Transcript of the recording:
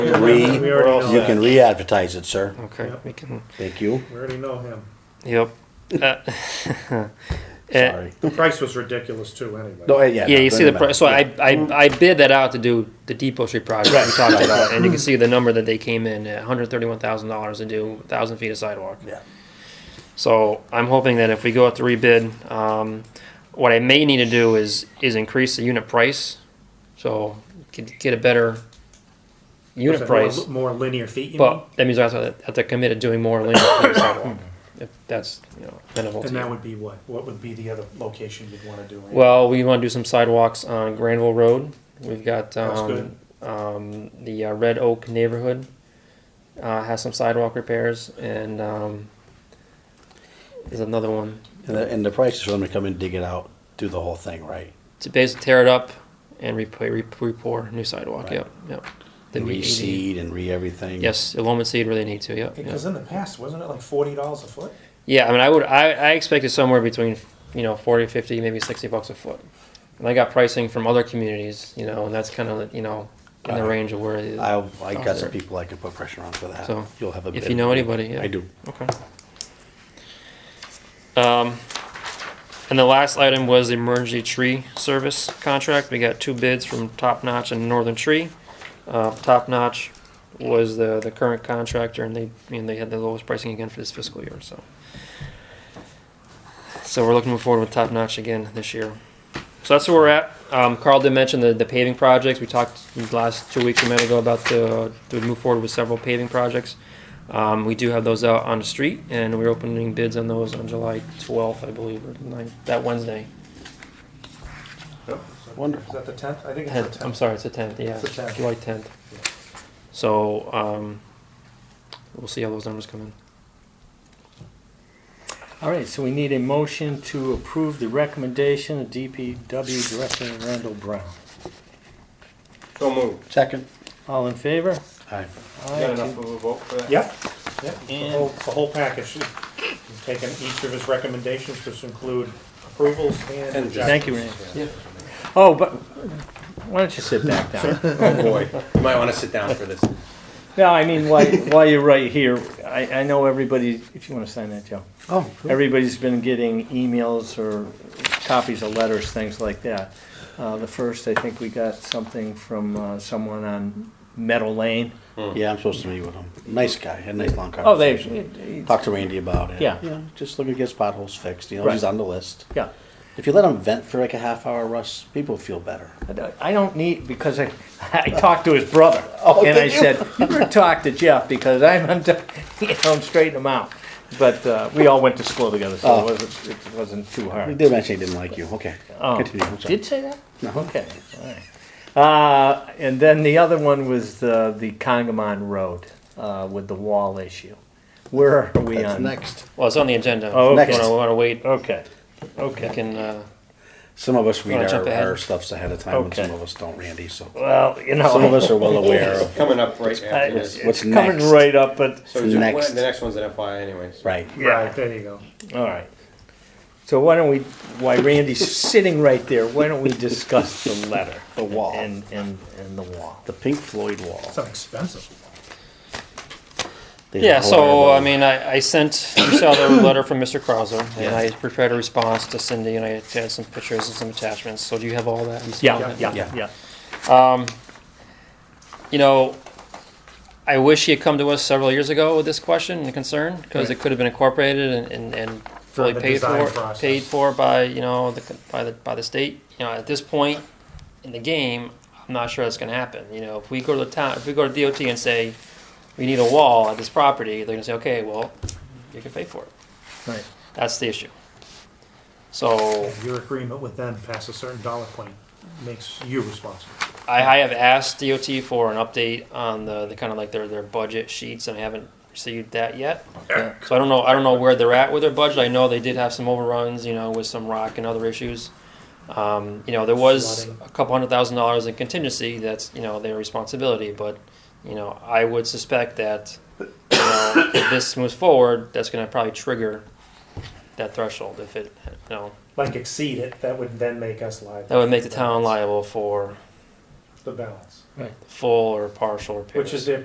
can We- re, we already know you can re-advertise it, sir. Okay, Yep. we can, Thank you. We already know him. yep. Uh, eh, Sorry. The price was ridiculous too, anyway. No, yeah. Yeah, no, you see the doesn't price. So matter. I, I I bid that out to do the Depot Street project we talked about, and you can see the number that they came in at one hundred thirty-one thousand dollars to do thousand feet of sidewalk. Yeah. So I'm hoping that if we go out to rebid, um, what I may need to do is is increase the unit price, so get get a better Was unit it price. More, more linear feet, you mean? But that means I have to, have to commit to doing more linear feet of sidewalk. If that's you know amenable to And you. that would be what? What would be the other location you'd wanna do? Andy? Well, we want to do some sidewalks on Granville Road. We've got That's um, um, the uh, Red Oak neighborhood uh, has some sidewalk repairs, and um, there's another one And the, and the price is for them to come and dig it out, do the whole thing, right? to basically tear it up and replay, re- re-pour new sidewalk. Right. Yep, yep. And be 80. re-seed and re-everything. Yes, Illumin seed where they need to. Yep. yep. Because in the past, wasn't it like forty dollars a foot? Yeah, I mean, I would, I, I expected somewhere between, you know, 40, 50, maybe 60 bucks a foot. And I got pricing from other communities, you know, and that's kind of, you know, in the Right. range of where it is. I, I got some Sure. people I could put pressure on for that. So, You'll have a if bid. you know anybody, yeah. I do. Okay. Um, and the last item was the emergency tree service contract. We got two bids from Top Notch and Northern Tree. Uh, Top Notch was the, the current contractor and they, and they had the lowest pricing again for this fiscal year, so. So we're looking forward with Top Notch again this year. So that's where we're at. Um, Carl did mention the, the paving projects. We talked last two weeks a minute ago about the, to move forward with several paving projects. Um, we do have those out on the street, and we're opening bids on those on July 12th, I believe, or 9th, that Wednesday. Yep. Is Wonderful. that the tenth? I think it's the 10th, tenth. I'm sorry, it's the 10th, yeah, It's the 10th. July 10th. So um, we'll see how those numbers come in. All right, so we need a motion to approve the recommendation of DPW Director Randall Brown. So moved. Second. All in favor? Aye. Got enough of a vote for that? Yep, yep, the And- whole, the whole package. We've Taken each of his recommendations, which include approvals and. Thank you, rejections. Randy. Oh, but, why don't you sit back down? Oh, boy. You might want to sit down for this. No, I mean, while, while you're right here, I, I know everybody, if you want to sign that, Joe. Oh, Everybody's been getting emails or copies of letters, things like that. Uh, the first, I think we got something from, uh, someone on Meadow Lane. yeah, I'm supposed to meet with him. Nice guy. Had a nice long Mm. Oh, they, conversation. it- it- Talked to Randy about it. Yeah. Yeah, just looking to get his potholes fixed. You know, Right. he's on the list. yeah. If you let him vent for like a half hour, Russ, people feel better. I don't- I don't need, because I, I talked to his brother. Oh, And I did you? said, you better talk to Jeff because I'm, I'm, done," you know, I'm straightening him out. But, uh, we all went to school together, so Oh. it wasn't, it wasn't too He hard. did mention he didn't like you. Okay. Oh, Continue. I'm sorry. Did say that? No. Okay, all right. Uh, and then the other one was the, the Congamon Road, uh, with the wall issue. Where are we That's on? next. Well, it's on the agenda. Oh, okay. We want to wait. Okay, We okay. can, uh, Some of us read Wanna jump our, ahead? our stuffs ahead of time, Okay. and some of us don't, Randy. So Well, you know. some of us are well aware of It's coming up right I- after It's this. What's coming next? right up, but So just- Next. the next one's an FYI anyways. right. Right, there you go. All right. So why don't we, why Randy's sitting right there, why don't we discuss the letter? The wall. And, and, and the wall. The Pink Floyd wall. It's not expensive. They Yeah, have so, horrible- I mean, I, I sent, you saw the letter from Mr. Krauser, and I prepared a response to Cindy, and I had some pictures and some attachments, so do you have all that? You see all Yeah, that? yeah, Yeah. yeah. You know, I wish he had come to us several years ago with this question and concern, because it Right. could have been incorporated and, and, and fully the paid design for, process. paid for by, you know, the, by the, by the state. You know, at this point in the game, I'm not sure that's gonna happen, you know, if we go to the town, if we go to DOT and say, we need a wall at this property, they're gonna say, okay, well, you can pay for it. Right. That's the issue. So Your agreement with them past a certain dollar point makes you responsible. I, I have asked DOT for an update on the, the kind of like their, their budget sheets and I haven't received that yet. Yeah. So I don't know, I don't know where they're at with their budget. I know they did have some overruns, you know, with some rock and other issues. Um, you know, there was Flooding. a couple hundred thousand dollars in contingency. That's, you know, their responsibility, but, you know, I would suspect that, you know, if this moves forward, that's gonna probably trigger that threshold if it, you know, Like exceed it, that would then make us liable. That would make the town liable for The balance, full or partial repairs. which is their